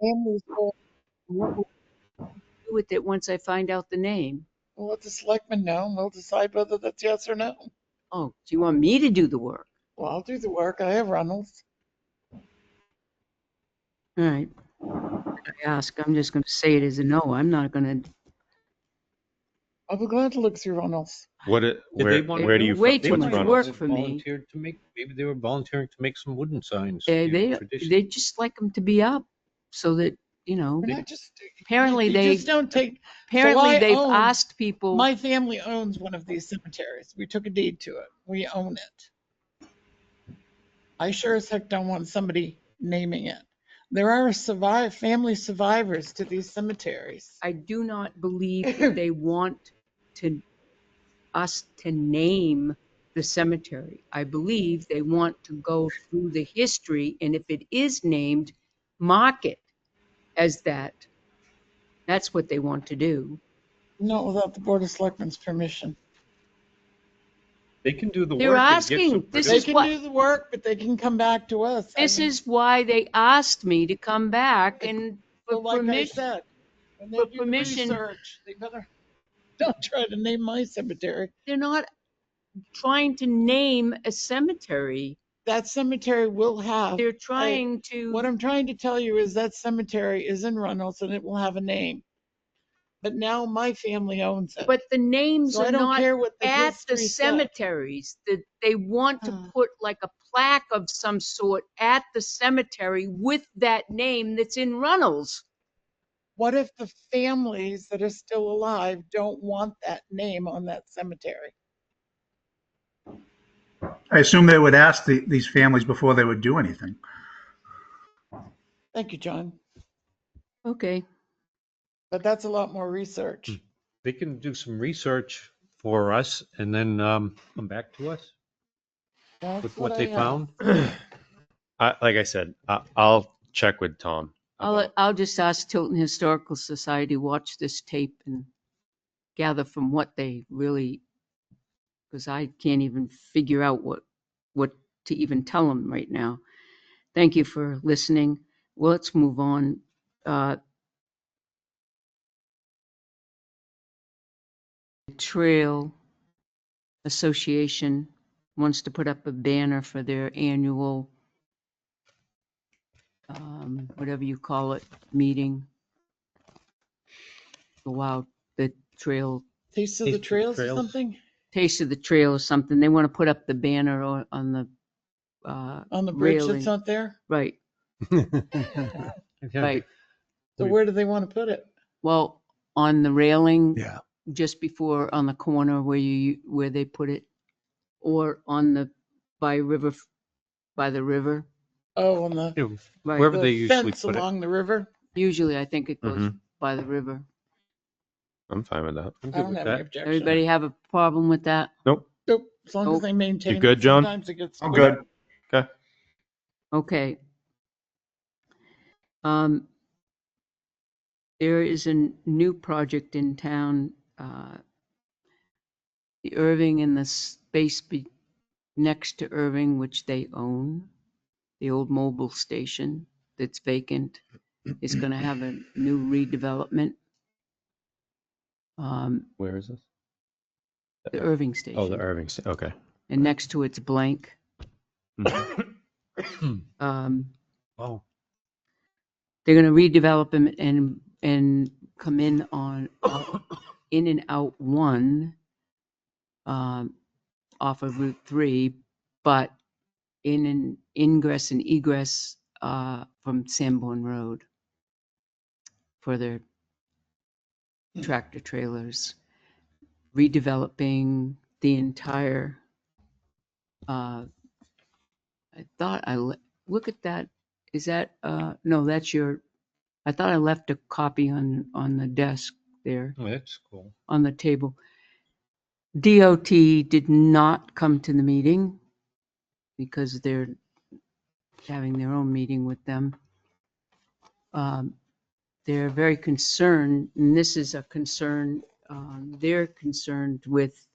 families go, "We'll- we'll do with it once I find out the name. we'll let the selectmen know and they'll decide whether that's yes or no. Oh, do you want me to do the work? Well, I'll do the work. I have Reynolds. All right. I ask, I'm just going to say it as a no. I'm not going to, I'll be glad to look through Reynolds. What, it- Did where, they want where to do you? do- Way fi- too what's much Reynolds? work They for me. Volunteered to make, maybe they were volunteering to make some wooden signs. they, you know, they, tradition. they just like them to be up so that, you know, And I just, apparently you they, Oh. just don't take, I apparently they've own asked people. my family owns one of these cemeteries. We took a deed to it. We own it. I sure as heck don't want somebody naming it. There are survive, family survivors to these cemeteries. I do not believe that they want to, us to name the cemetery. I believe they want to go through the history, and if it is named, mark it as that. That's what they want to do. Not without the Board of Selectmen's permission. They can do the work. They're and get some asking, this They is production. can what- do the work, but they can come back to us. I This mean, is why they asked me to come back and so for like I permission. said, when they for do the permission- research, They better, don't try to name my cemetery. They're not trying to name a cemetery. That cemetery will have, They're trying to. Oh, what I'm trying to tell you is that cemetery is in Reynolds and it will have a name. But now my family owns it. But the names So I are don't not care what the at the history said. cemeteries, that they want to Uh. put like a plaque of some sort at the cemetery with that name that's in Runnels. What if the families that are still alive don't want that name on that cemetery? I assume they would ask the, these families before they would do anything. Thank you, John. Okay, But that's a lot more Hmm. research. They can do some research for us and then um, come back to us That's with what I uh, they asked. found. I, like I said, I, I'll check with Tom. I'll, about- I'll just ask Tilton Historical Society, watch this tape and gather from what they really, because I can't even figure out what, what to even tell them right now. Thank you for listening. Well, let's move on. Uh, Trail Association wants to put up a banner for their annual, um, whatever you call it, meeting. Go out, the trail, Taste of the Taste of the Trails or Trails. something Taste of the Trail or something. They want to put up the banner o- on the, uh, on the bridge Railing. that's not there? right, Yeah. right. So We- where do they want to put it? Well, on the railing. Yeah. Just before, on the corner where you, where they put it, or on the, by river, by the river. Oh, on the, You know, Right, Wherever the they usually fence put it. along the river. usually I think it goes Mm-hmm. by the river. I'm fine with that. I I'm good don't with have any that. objection. Everybody have a problem with that? Nope, as long Nope. as they maintain. it. good, John? Sometimes it gets. I'm good. Okay. Um, there is a n- new project in town, uh, the Irving and the space be, next to Irving, which they own, the old mobile station that's vacant, is gonna have a new redevelopment. Um, Where is this? the Irving Oh, the Station, Irving, sta- okay. Mm-hmm. and next to it's blank. Hmm. Um, Wow. they're gonna redevelop them and, and come in on, Oh, out- in and out one, um, off of Route three, but in an ingress and egress, uh, from Sanborn Road for their tractor trailers, redeveloping the entire, uh, I thought I, le- look at that is that, uh, no, that's your, I thought I left a copy on, on the desk there, Oh, That's cool. on the table. DOT did not come to the meeting because they're having their own meeting with them. Um, They're very concerned, and this is a concern, um, they're concerned with